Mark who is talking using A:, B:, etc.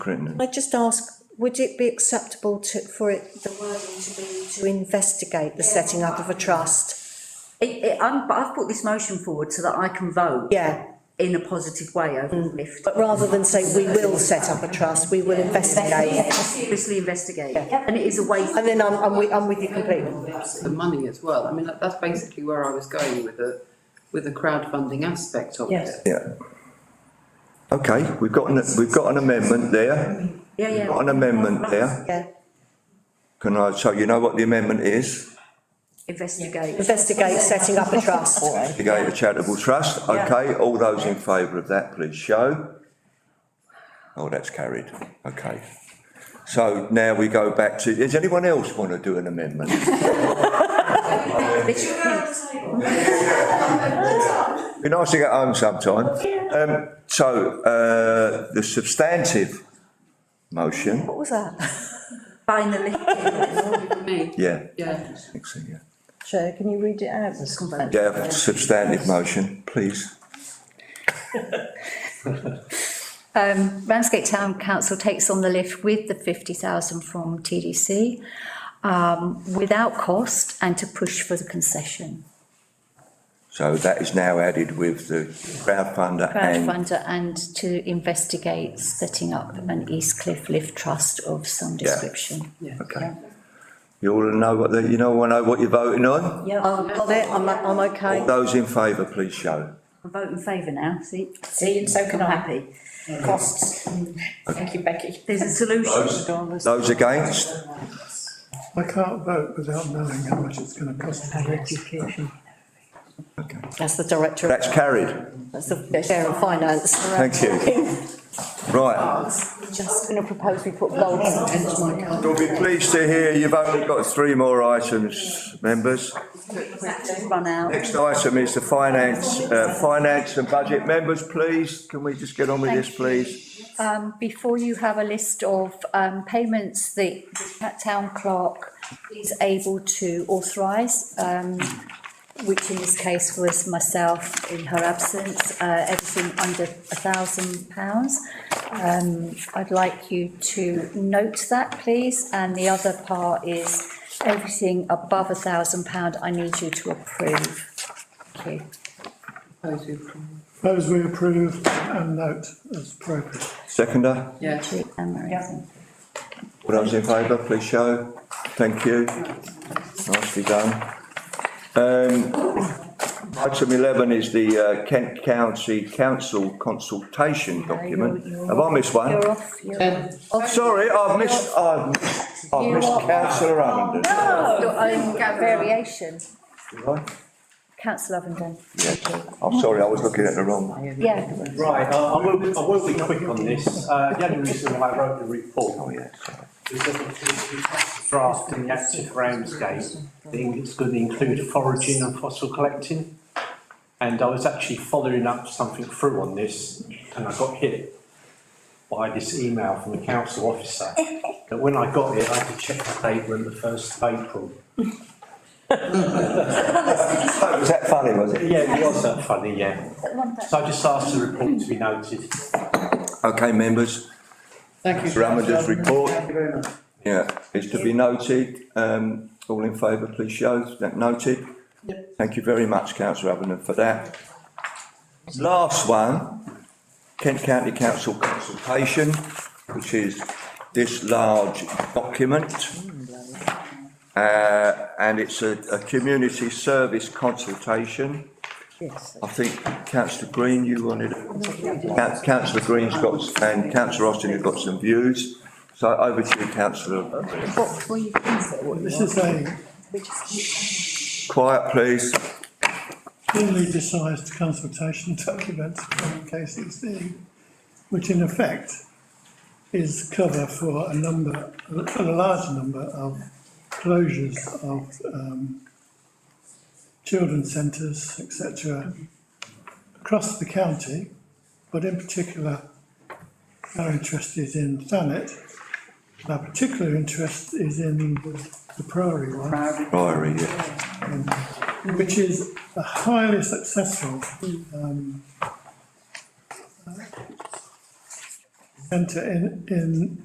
A: Crittenden.
B: I just ask, would it be acceptable to, for it, the wording to be to investigate the setting up of a trust?
C: It, it, I'm, but I've put this motion forward so that I can vote.
B: Yeah,
C: In a positive way over the lift.
D: Mm.
B: but rather than say, we will set up a trust, we will investigate it.
C: Seriously investigate,
B: Yeah.
C: and it is a way,
B: And then I'm, I'm with, I'm with you completely.
E: the money as well. I mean, that, that's basically where I was going with the, with the crowdfunding aspect of
B: Yes.
E: it.
A: Yeah. Okay, we've got, an we've got an amendment there.
C: yeah,
A: We've
C: yeah.
A: got an amendment there.
B: Yeah,
A: Can I, so you know what the amendment is?
C: Investigate.
B: investigate setting up a trust.
A: Create a charitable trust, okay, all those in favour of that, please show. Oh, that's carried, okay. So now we go back to, does anyone else want to do an amendment?
C: This-
A: Be nice to get home sometime. Um, so, uh, the substantive motion,
B: What was that?
C: Buying the lift.
E: Me,
A: yeah,
E: yeah.
A: next thing, yeah.
F: Chair, can you read it out?
A: Yeah, substantive motion, please.
D: Um, Ramsgate Town Council takes on the lift with the fifty thousand from TDC, um, without cost and to push for the concession.
A: So that is now added with the crowdfunder and,
D: Crowdfunder and to investigate setting up an East Cliff Lift Trust of some
A: Yeah.
D: description.
A: okay. You all know what, the- you all know what you're voting on?
B: Yeah,
D: Um,
B: I've got it, I'm, I'm okay.
A: All those in favour, please show.
D: I vote in favour now, see?
F: See, and so can
D: I'm
F: I.
D: happy.
F: Costs. Thank you, Becky.
C: There's a solution.
A: Those against?
G: I can't vote without knowing how much it's going to cost.
B: That's the director,
A: That's carried,
B: that's the chair of finance.
A: thank you. Right,
F: Just going to propose we put gold on.
A: you'll be pleased to hear you've only got three more items, members.
D: Run out.
A: Next item is the finance, uh, finance and budget. Members, please, can we just get on with this, please?
D: Um, before you have a list of, um, payments that the town clerk is able to authorise, um, which in this case was myself in her absence, uh, everything under a thousand pounds. Um, I'd like you to note that, please, and the other part is everything above a thousand pound, I need you to approve. Thank you.
E: Those who from-
G: Those we approve and note as appropriate.
A: Seconder,
E: Yeah,
D: Thank you, Anne Marie.
A: all those in favour, please show. Thank you. Nicely done. Um, item eleven is the uh, Kent County Council consultation document. Have I missed one?
D: You're off, you're
E: Um,
D: off.
A: Sorry, I've missed, I've, I've missed councillor Arundel.
F: Oh,
D: Your own variation,
A: Have I?
D: councillor Ovenden.
A: Yeah, I'm sorry, I was looking at the wrong one.
D: Yeah,
H: Right, uh, I I will, be- I will be quick on this. Uh, the only reason why I wrote the report is that the- the draft in the active Ramsgate, I think it's going to include foraging and fossil collecting. And I was actually following up something through on this and I got hit by this email from the council officer. That when I got it, I had to check the date when the first of April.
A: Was that funny, was it?
H: Yeah, it was that funny, yeah. So I just asked the report to be noted.
A: Okay, members.
E: Thank you.
A: Ramadan's report.
E: Thank you very much.
A: Yeah, it's to be noted, um, all in favour, please show, that noted. Thank you very much, councillor Avenant, for that. Last one, Kent County Council consultation, which is this large document. Uh, and it's a, a community service consultation. I think councillor Green, you wanted, Coun- councillor Green's got, and councillor Austin have got some views. So over to you, councillor.
D: what were you going to say?
G: This is a
A: Quiet, please.
G: poorly decised consultation document from KCC, which in effect is cover for a number, for a large number of closures of, um, children's centres, etc., across the county, but in particular, our interest is in Thanet. Our particular interest is in the- the Priory one
A: Priory, yeah.
G: which is a highly successful um, centre uh, in, in